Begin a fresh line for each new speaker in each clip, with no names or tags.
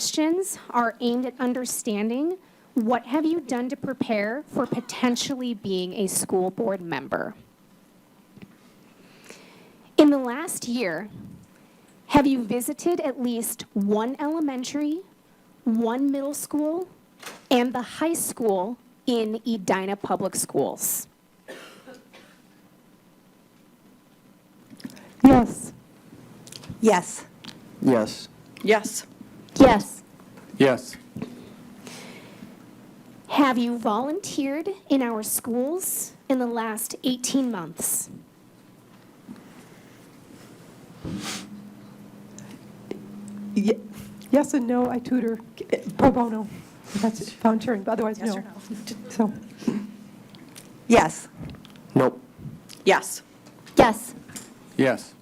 questions are aimed at understanding what have you done to prepare for potentially being a school board member? In the last year, have you visited at least one elementary, one middle school, and the high school in Edina Public Schools?
Yes.
Yes.
Yes.
Yes.
Yes.
Yes.
Have you volunteered in our schools in the last 18 months?
Ye- Yes and no, I tutor eh, pro bono. That's it, volunteering, but otherwise, no. So,
Yes.
Nope.
Yes.
yes.
Yes.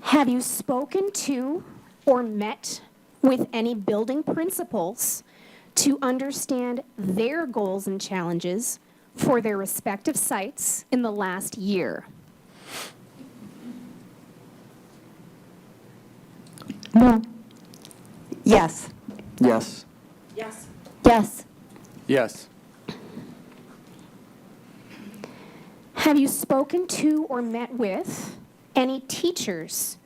Have you spoken to or met with any building principals to understand their goals and challenges for their respective sites in the last year?
No.
Yes.
Yes.
Yes.
Yes.
Yes.
Have you spoken to or met with any teachers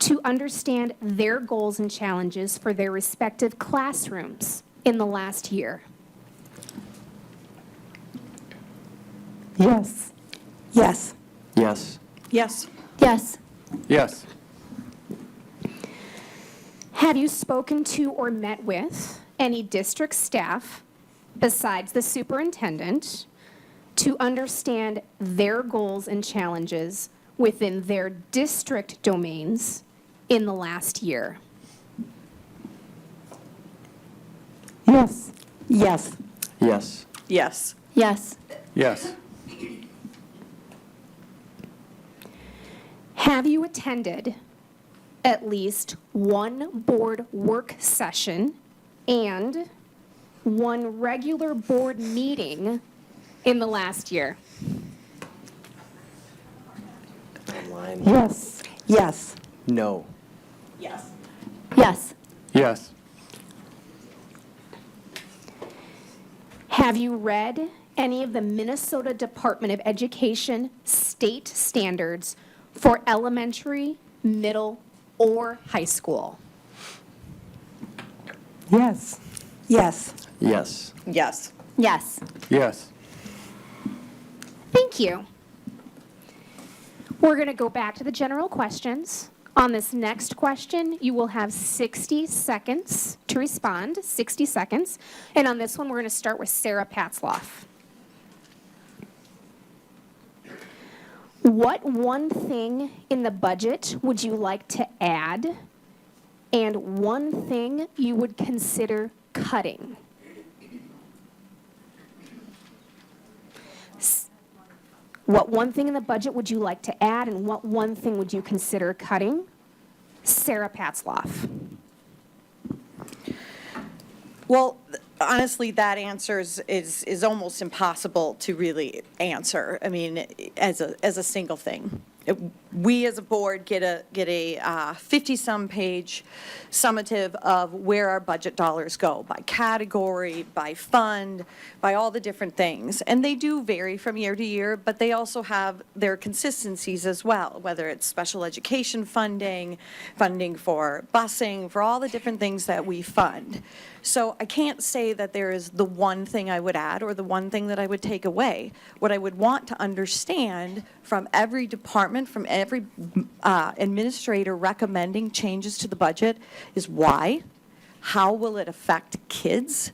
to understand their goals and challenges for their respective classrooms in the last year?
Yes.
Yes.
Yes.
Yes.
Yes.
Yes.
Have you spoken to or met with any district staff besides the superintendent to understand their goals and challenges within their district domains in the last year?
Yes.
Yes.
Yes.
Yes.
Yes.
Yes.
Have you attended at least one board work session and one regular board meeting in the last year?
Yes.
Yes.
No.
Yes.
Yes.
Yes.
Have you read any of the Minnesota Department of Education state standards for elementary, middle, or high school?
Yes.
Yes.
Yes.
Yes.
Yes.
Yes.
Thank you. We're going to go back to the general questions. On this next question, you will have 60 seconds to respond, 60 seconds. And on this one, we're going to start with Sarah Patzloff. What one thing in the budget would you like to add and one thing you would consider cutting? What one thing in the budget would you like to add, and what one thing would you consider cutting? Sarah Patzloff.
Well, th- honestly, that answer is, is, is almost impossible to really answer. I mean, as a, as a single thing. It- We as a board get a, get a uh, 50-some page summative of where our budget dollars go by category, by fund, by all the different things. And they do vary from year to year, but they also have their consistencies as well, whether it's special education funding, funding for busing, for all the different things that we fund. So I can't say that there is the one thing I would add or the one thing that I would take away. What I would want to understand from every department, from every uh, administrator recommending changes to the budget is why, how will it affect kids?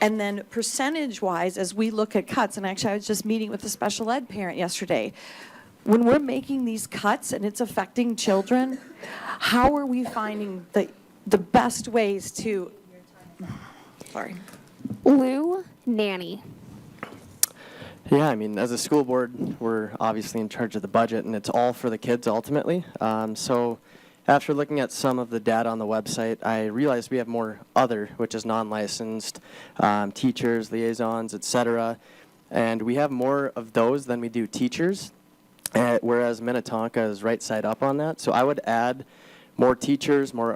And then percentage-wise, as we look at cuts, and actually, I was just meeting with a special ed parent yesterday. When we're making these cuts and it's affecting children, how are we finding the, the best ways to, sorry.
Lou Nanny.
Yeah, I mean, as a school board, we're obviously in charge of the budget, and it's all for the kids ultimately. Um, so, after looking at some of the data on the website, I realized we have more other, which is non-licensed um, teachers, liaisons, etc., and we have more of those than we do teachers. eh, Uh, whereas Minnetonka is right side up on that, so I would add more teachers, more